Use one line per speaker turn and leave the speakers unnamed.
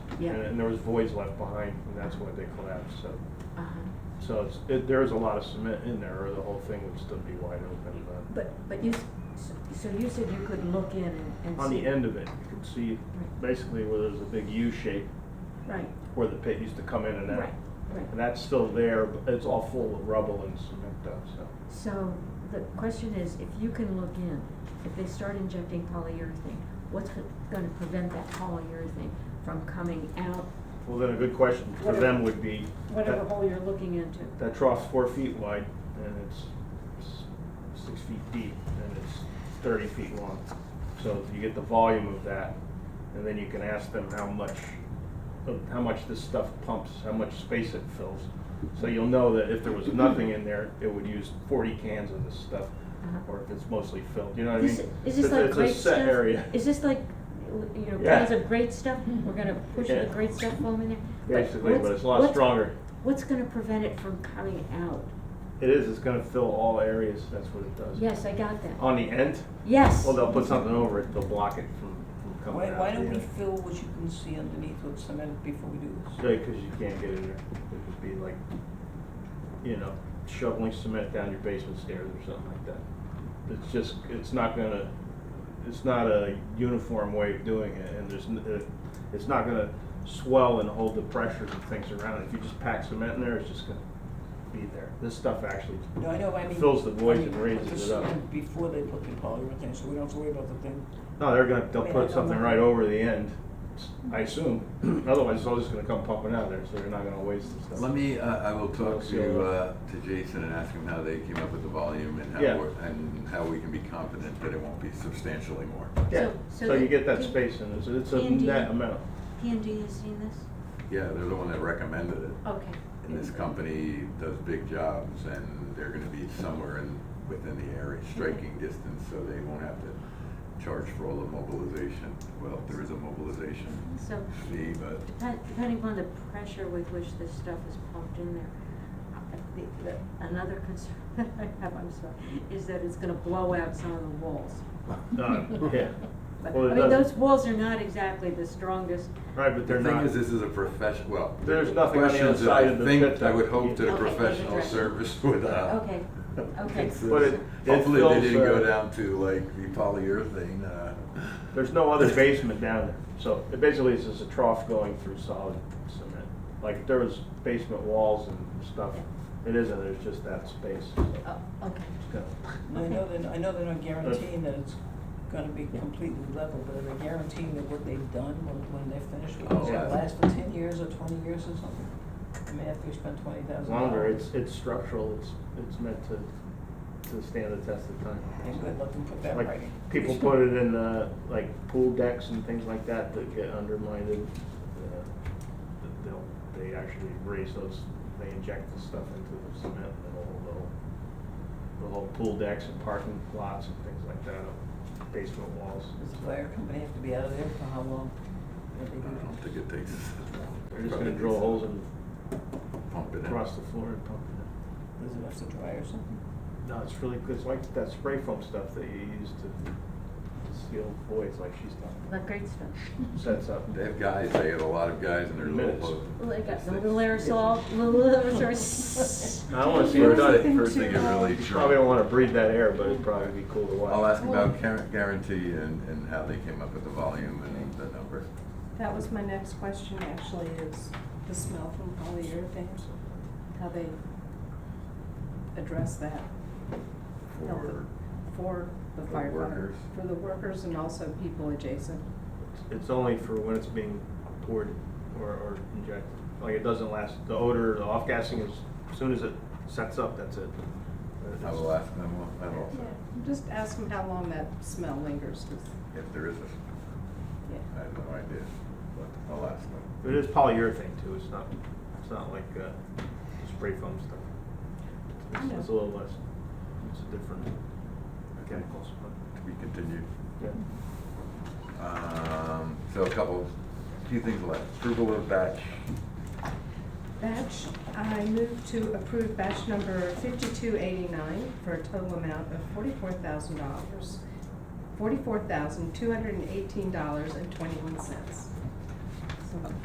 Yeah.
And, and there was voids left behind, and that's why they collapsed, so.
Uh-huh.
So it's, it, there is a lot of cement in there, or the whole thing would still be wide open, but
But, but you, s- so- so you said you could look in and- and see.
on the end of it, you can see
Right.
basically where there's a big U shape
Right,
where the pit used to come in and out.
right, right.
And that's still there, but it's all full of rubble and cement though, so.
So the question is, if you can look in, if they start injecting polyurethane, what's go- gonna prevent that polyurethane from coming out,
Well, then a good question for them would be,
whatever
that,
hole you're looking into?
that trough's four feet wide, and it's s- six feet deep, and it's thirty feet long. So if you get the volume of that, and then you can ask them how much, of- how much this stuff pumps, how much space it fills. So you'll know that if there was nothing in there, it would use forty cans of this stuff,
Uh-huh.
or if it's mostly filled, you know what I mean?
This- Is this
It's a-
like great
It's a set
stuff?
area.
Is this like, you know,
Yeah.
cans of great stuff? We're gonna push the
Yeah.
great stuff foam in there?
Basically, but
what's-
it's a lot
what's-
stronger.
What's gonna prevent it from coming out?
It is, it's gonna fill all areas, that's what it does.
Yes, I got that.
On the end,
Yes.
well, they'll put something over it, they'll block it from, from coming
Why,
out.
why don't we fill what you can see underneath with cement before we do this?
cause you can't get in there, it could be like, you know, shoveling cement down your basement stairs or something like that. It's just, it's not gonna, it's not a uniform way of doing it, and there's, n- it- it's not gonna swell and hold the pressure and things around it. If you just pack cement in there, it's just gonna be there. This stuff actually
No, I know, I mean.
fills the voids
I mean,
and raises it
Put the
up.
cement before they put the polyurethane, so we don't have to worry about the thing.
No, they're gonna, they'll
Wait,
put
I
something
don't know.
right over the end, I assume. Otherwise, it's all just gonna come pumping out of there, so they're not gonna waste the stuff.
Let me, uh, I will talk to,
Yeah.
uh, to Jason and ask him how they came up with the volume and how,
Yeah.
we're- and how we can be confident that it won't be substantially more.
Yeah,
So- so
so you
the-
get that
the-
space in, it's, it's a
Andy-
net amount.
P and D has seen this?
Yeah, they're the one that recommended it.
Okay.
And this company does big jobs and they're gonna be somewhere in, within the area, striking distance, so they won't have to charge for all the mobilization. Well, if there is a mobilization
So
fee, but
Depen- Depending upon the pressure with which this stuff is pumped in there, I think that another concern that I have, I'm sorry, is that it's gonna blow out some of the walls.
Uh, yeah.
But,
Well, it
I mean,
doesn't-
those walls are not exactly the strongest.
Right, but they're
The thing
not,
is, this is a profession, well.
There's nothing on the
questions that
outside of the
I think,
pit that
I would
you-
hope that a
Okay,
professional
okay.
service would, uh.
Okay, okay.
It's,
But it-
uh,
it
Hopefully they
fills,
didn't
uh,
go down to like the polyurethane, uh.
there's no other basement down there. So it basically is just a trough going through solid cement. Like, if there was basement walls and stuff, it isn't, there's just that space. so
Oh, okay.
it's gonna-
And I know they're, I know they're not guaranteeing that it's gonna be completely level, but they're guaranteeing that what they've done, when, when they're finished, with it, it's
Oh,
gonna
yeah.
last for ten years or twenty years or something. I mean, after you spend twenty thousand dollars.
Longer, it's, it's structural, it's, it's meant to, to stand the test of time.
And good luck and put that in
Like,
writing.
people put it in, uh, like pool decks and things like that that get undermined, and, uh, that they'll, they actually raise those, they inject the stuff into the cement, and it'll hold the whole, the whole pool decks and parking lots and things like that, uh, basement walls.
Does the fire company have to be out of there for how long? What they
I don't
do?
think it takes.
They're just gonna drill holes and
Pump it in.
across the floor and pump it in.
Does it have to dry or something?
No, it's really, it's like that spray foam stuff that you use to seal voids, like she's talking,
Like great stuff.
sets up.
They have guys, they have a lot of guys in their
Minutes.
little.
Like a little aerosol, little aerosol.
I wanna see it
First
done.
thing, first thing it
Probably
really
don't
drunk.
wanna breathe that air, but it'd probably be cool to watch.
I'll ask about guar- guarantee and, and how they came up with the volume and the number.
That was my next question, actually, is the smell from polyurethane, how they address that
for
for the
For
firefighter,
workers.
for the workers and also people adjacent.
It's only for when it's being poured or, or injected. Like, it doesn't last, the odor, the off-gassing is, as soon as it sets up, that's it.
I will ask them what- that also,
Just ask them how long that smell lingers, 'cause-
if there is a,
yeah.
I have no idea, but I'll ask them.
It is polyurethane too, it's not, it's not like, uh, spray foam stuff. It's- It's a little less, it's a different chemicals, but,
To be continued.
yeah.
Um, so a couple, few things left. Approval of batch.
Batch, I move to approve batch number fifty-two eighty-nine for a total amount of forty-four thousand dollars, forty-four thousand, two hundred and eighteen dollars and twenty-one cents.